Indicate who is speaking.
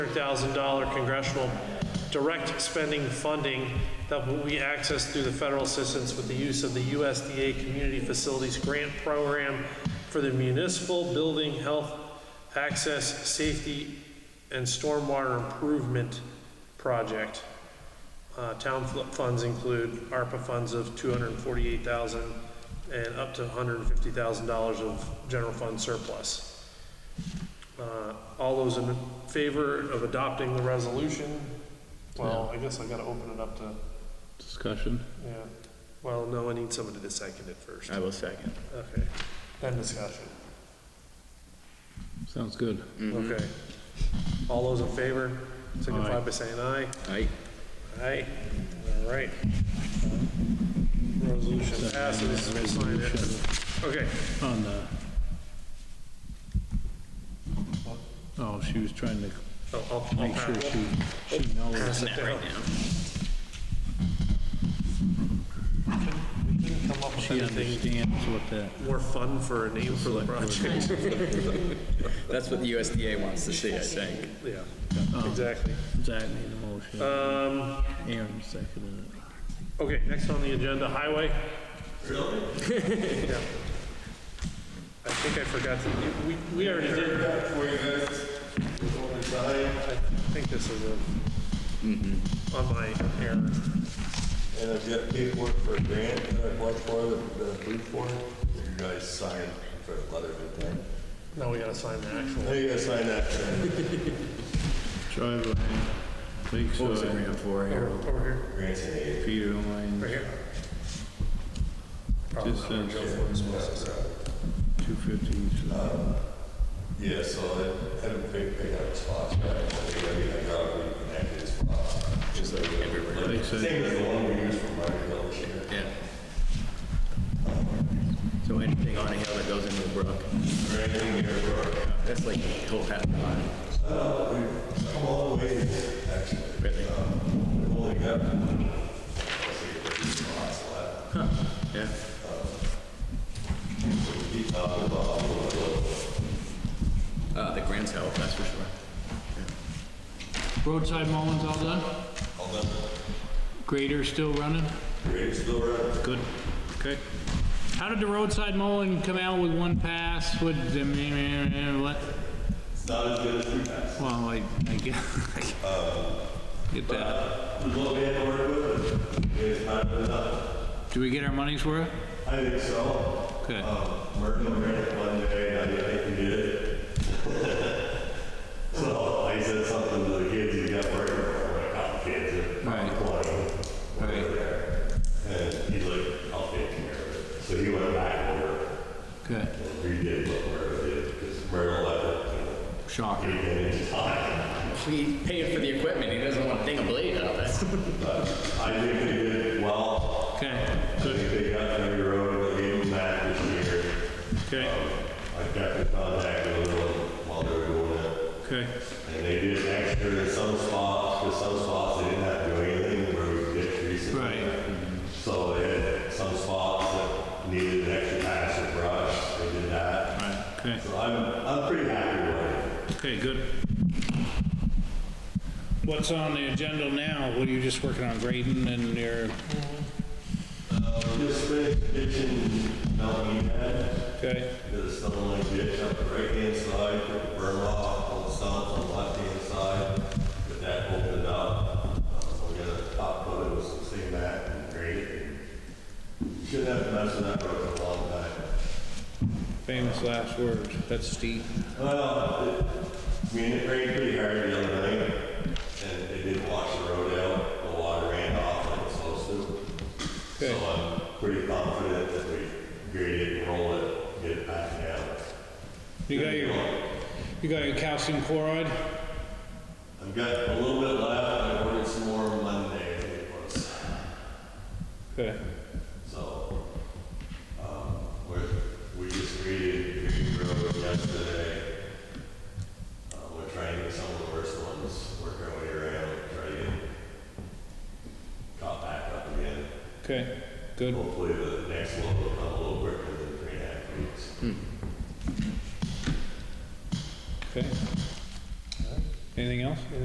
Speaker 1: $300,000 congressional direct spending funding that will be accessed through the federal assistance with the use of the USDA Community Facilities Grant Program for the municipal building health access, safety, and stormwater improvement project. Uh, Town fl- funds include ARPA funds of $248,000 and up to $150,000 of general fund surplus. Uh, All those in favor of adopting the resolution? Well, I guess I gotta open it up to,
Speaker 2: Discussion?
Speaker 1: yeah, well, no, I need somebody to second it first.
Speaker 3: I will second.
Speaker 1: Okay, then discussion.
Speaker 2: Sounds good.
Speaker 1: Okay. All those in favor, signify
Speaker 2: Aye.
Speaker 1: by saying aye.
Speaker 3: Aye.
Speaker 1: Aye. All right. Resolution passes. We sign it. Okay.
Speaker 2: On uh, the... Oh, she was trying to
Speaker 1: I'll, I'll, I'll
Speaker 2: make sure
Speaker 1: pass
Speaker 2: she, she knows.
Speaker 1: pass it down. We Couldn't come up with
Speaker 2: She
Speaker 1: anything
Speaker 2: understands what that,
Speaker 1: more fun for a name for the project.
Speaker 3: That's what the USDA wants to see, I think.
Speaker 1: Yeah, exactly.
Speaker 2: Zach made the motion,
Speaker 1: Um,
Speaker 2: Aaron seconded it.
Speaker 1: Okay, next on the agenda, highway. Really? Yeah. I think I forgot to, we, we already did. I think this is a, on my error.
Speaker 4: And I've got paperwork for a grant that I applied for, that that I approved for, that you guys signed for a letter of intent.
Speaker 1: Now we gotta sign the actual.
Speaker 4: Now you gotta sign that
Speaker 2: Driveway, Lakeside,
Speaker 3: for
Speaker 1: Over over here,
Speaker 4: for grants and aid.
Speaker 2: Peter
Speaker 1: right
Speaker 2: Line,
Speaker 1: here.
Speaker 2: just says two fifty.
Speaker 4: Um, Yeah, so I haven't picked, picked up his spots, but I think I mean, I got it reconnected his spots. Just like everywhere.
Speaker 2: Lakeside.
Speaker 4: Same as the one we used for Martin Hill this year.
Speaker 3: Yeah. So anything on a hill that goes into a brook,
Speaker 4: Or anything here for,
Speaker 3: that's like whole half the line.
Speaker 4: uh, we've come all the way, actually.
Speaker 3: Really?
Speaker 4: Um, We've only got, I think, 30 spots left.
Speaker 3: Yeah. Uh, the grants help, that's for sure.
Speaker 2: Roadside mowing's all done?
Speaker 4: All done.
Speaker 2: Grader's still running?
Speaker 4: Great, still running.
Speaker 2: Good. Okay. How did the roadside mowing come out with one pass? What, what?
Speaker 4: It's not as good as we passed.
Speaker 2: Well, I, I get, get that.
Speaker 4: There's what we had to work with, it is not good enough.
Speaker 2: Do we get our money's worth?
Speaker 4: I think so.
Speaker 2: Good.
Speaker 4: Um, Merton ran it one day, and I think he did it. So I said something to the kids, you got working for it, cop "Oh, kids. at
Speaker 2: Right.
Speaker 4: 20,
Speaker 2: Right.
Speaker 4: whatever. And he's like, I'll take care of it. So he went back over
Speaker 2: Good.
Speaker 4: and redid what Merton did, because Merton left it,
Speaker 2: Shocker.
Speaker 4: you know, eight inches high.
Speaker 3: He paid for the equipment, he doesn't want to ding a blade out of that.
Speaker 4: I think they did well.
Speaker 2: Okay,
Speaker 4: I think they got through the road, they gave them back this year. Um,
Speaker 2: okay,
Speaker 4: I kept in contact with them while they were doing it.
Speaker 2: okay.
Speaker 4: And they did extra in some spots, because some spots they didn't have to do anything where we ditched trees.
Speaker 2: Right.
Speaker 4: So they had some spots that needed an extra pass of brush, they did that.
Speaker 2: Right, okay,
Speaker 4: So I'm, I'm pretty happy with
Speaker 2: okay, good. What's on the agenda now? What are you just working on grading and your,
Speaker 4: it. Just finished ditching Melanie Head.
Speaker 2: okay,
Speaker 4: Did a stone line ditch up the right-hand side, put the berm off on the south and left-hand side, but that opened up. Uh, So we got a top coat, it was the same mat and grade. Shouldn't have to mess with that road for a long time.
Speaker 2: famous last words, that's Steve.
Speaker 4: Well, it- I mean, it rained pretty hard the other night, and it did wash the road out, the water ran off like it's supposed to.
Speaker 2: Okay.
Speaker 4: So I'm pretty confident that we grade it, roll it, get it back down.
Speaker 2: You got your, you got your calcium chloride?
Speaker 4: I've got a little bit left, I ordered some more Monday, I think it was.
Speaker 2: Okay,
Speaker 4: So, um, we're, we just graded Green Grove yesterday. Uh, we're trying to get some of the worst ones, work our way around, try to get caught back up again.
Speaker 2: okay, good.
Speaker 4: Hopefully the next one will come a little quicker than three and a half weeks.
Speaker 2: Okay. Anything else?